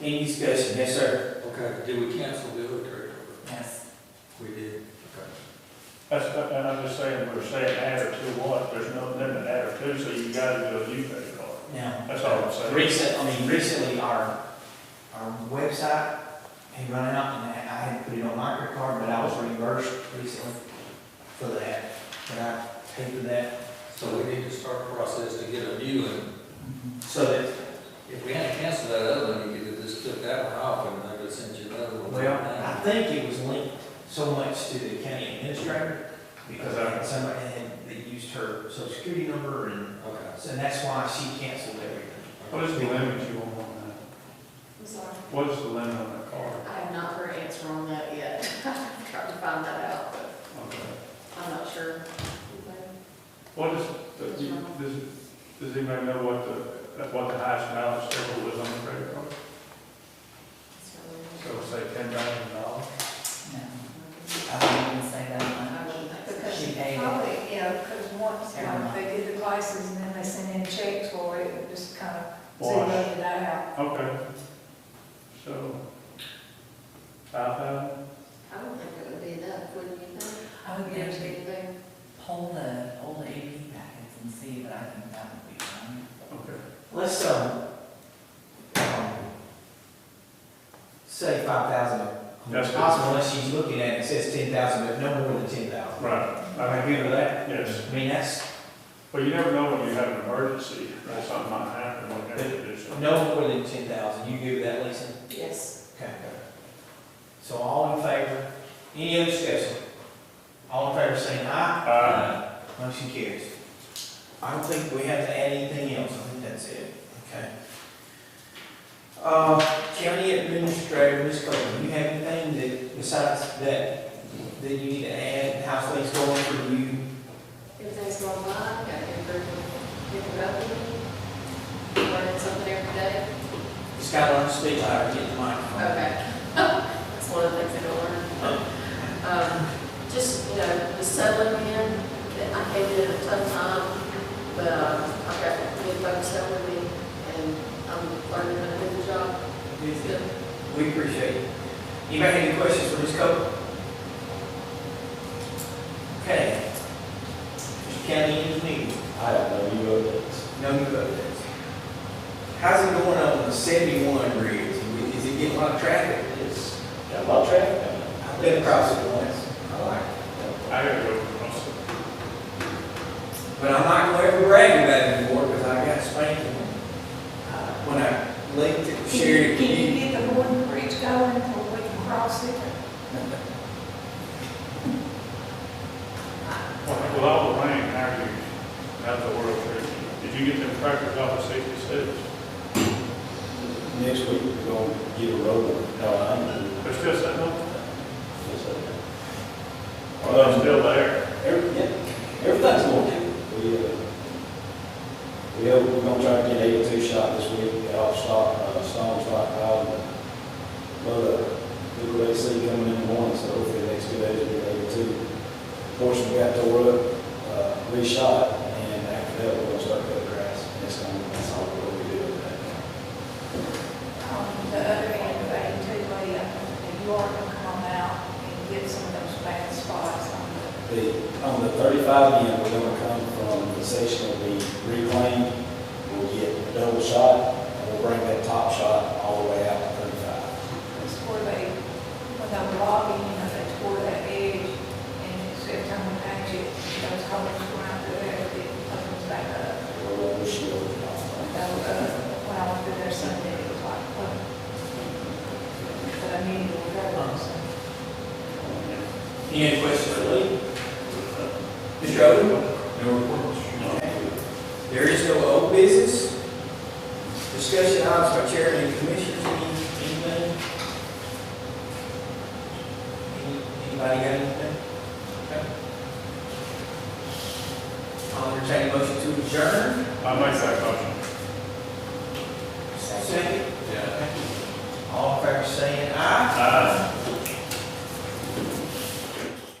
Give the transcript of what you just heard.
Amy's question, yes, sir. Okay, did we cancel the other trade? Yes. We did. Okay. That's, and I'm just saying, we're saying add or two what, there's no limit add or two, so you gotta do a new credit card. Now, That's all I'm saying. recent, I mean, recently, our, our website had run out, and I I had put it on my credit card, but I was reimbursed recently for that, but I paid for that, So we need to start the process to get a new one. so that, If we hadn't canceled that other one, you could have just took that one off and I would send you another one. well, I think it was linked so much to the county administrator, because I had somebody had, that used her social security number, and, Okay. so that's why she canceled everything. What is the limit you want on I'm sorry, that? What is the limit on that card? I have not heard an answer on that yet. I've Tried to find that out, but Okay. I'm not sure. What is, does, you- does- does anybody know what the, what the highest balance total was on the credit card? So say ten thousand dollars? No, Um, I wouldn't say that uh, much. Because She Because paid it. probably, yeah, because once Every like, month. they did the prices and then they sent in checks for it, it just kind of Wash. zeroed it out. Okay. So, five thousand? I don't think it would be enough, wouldn't you think? I would There's maybe anything. pull the, pull the AP packets and see, but I think that would be fine. Okay. Let's, um, um, say five thousand. That's good. Possible unless she's looking at it, it says ten thousand, but no more than ten thousand. Right. I agree with that. Yes. I mean, that's Well, you never know when you have an emergency, that something might happen, what have to do. so. no more than ten thousand. You agree with that, Lisa? Yes. Okay. So all in favor? Any other discussion? All in favor saying aye? Aye. Motion carries. I don't think we have to add anything else, I think that's it, okay? Uh, county administrator, Ms. Coleman, you have anything that, besides that, that you need to add, how things going for you? Everything's going fine, got improvement, different opening, learning something every day. Just gotta learn to speak louder, get the microphone. Okay. That's one of the things I don't learn. Um, Just, you know, just settling in, I came in at a tough time, but um, I've got new folks helping me, and I'm learning how to do the job. It's good. We appreciate it. Anybody have any questions for Ms. Copeland? Okay. Mr. County Engineer. I don't know, you wrote that. No new updates. How's it going on the seventy-one bridge? Is it getting a lot of traffic? It's got a lot of traffic on it. I've been across it once. I like it. I gotta go across the But I'm not gonna ever brag about it anymore because I got spanked when I linked it, Can shared you, it with can you you. get the Gordon Bridge going or we can cross it? Well, With all the rain, how are you, how's the world treating you? Did you get them crackers off of sixty-six? Next week, we're going to get a road, on. no, I'm not. They're still sitting on, Well, or they're still there? Every, yeah, everything's working. We, uh, we, hope we're gonna try to get eighty-two shot this week, get off stock, uh, stones right now, and, but, uh, the race league coming in one, so hopefully next two days we'll get eighty-two. Portion we got to work, uh, reshot, and after that, we're gonna start cutting grass, and that's gonna, that's all we're gonna be doing right now. On um, the other end of eighty-two way, up in New York will come out and get some of those bad spots on the The, on the thirty-five end, we're gonna come from the section that we reclaimed, we'll get a double shot, and we'll bring that top shot all the way out to thirty-five. It's where they, when they were logging, you know, they tore that edge, and it's every time we patch it, those holes were out there, it opens back up. We're going to shield it off. So, uh, when I went through there Sunday, it was like, what? But I knew it was there, so. Any other questions for Lee? Mr. Odom? No reports. There is no old business. Discussion items by chair and commissioners, any, anything? Any- Anybody got anything? Okay. I'll entertain a motion to adjourn. I make that motion. Second.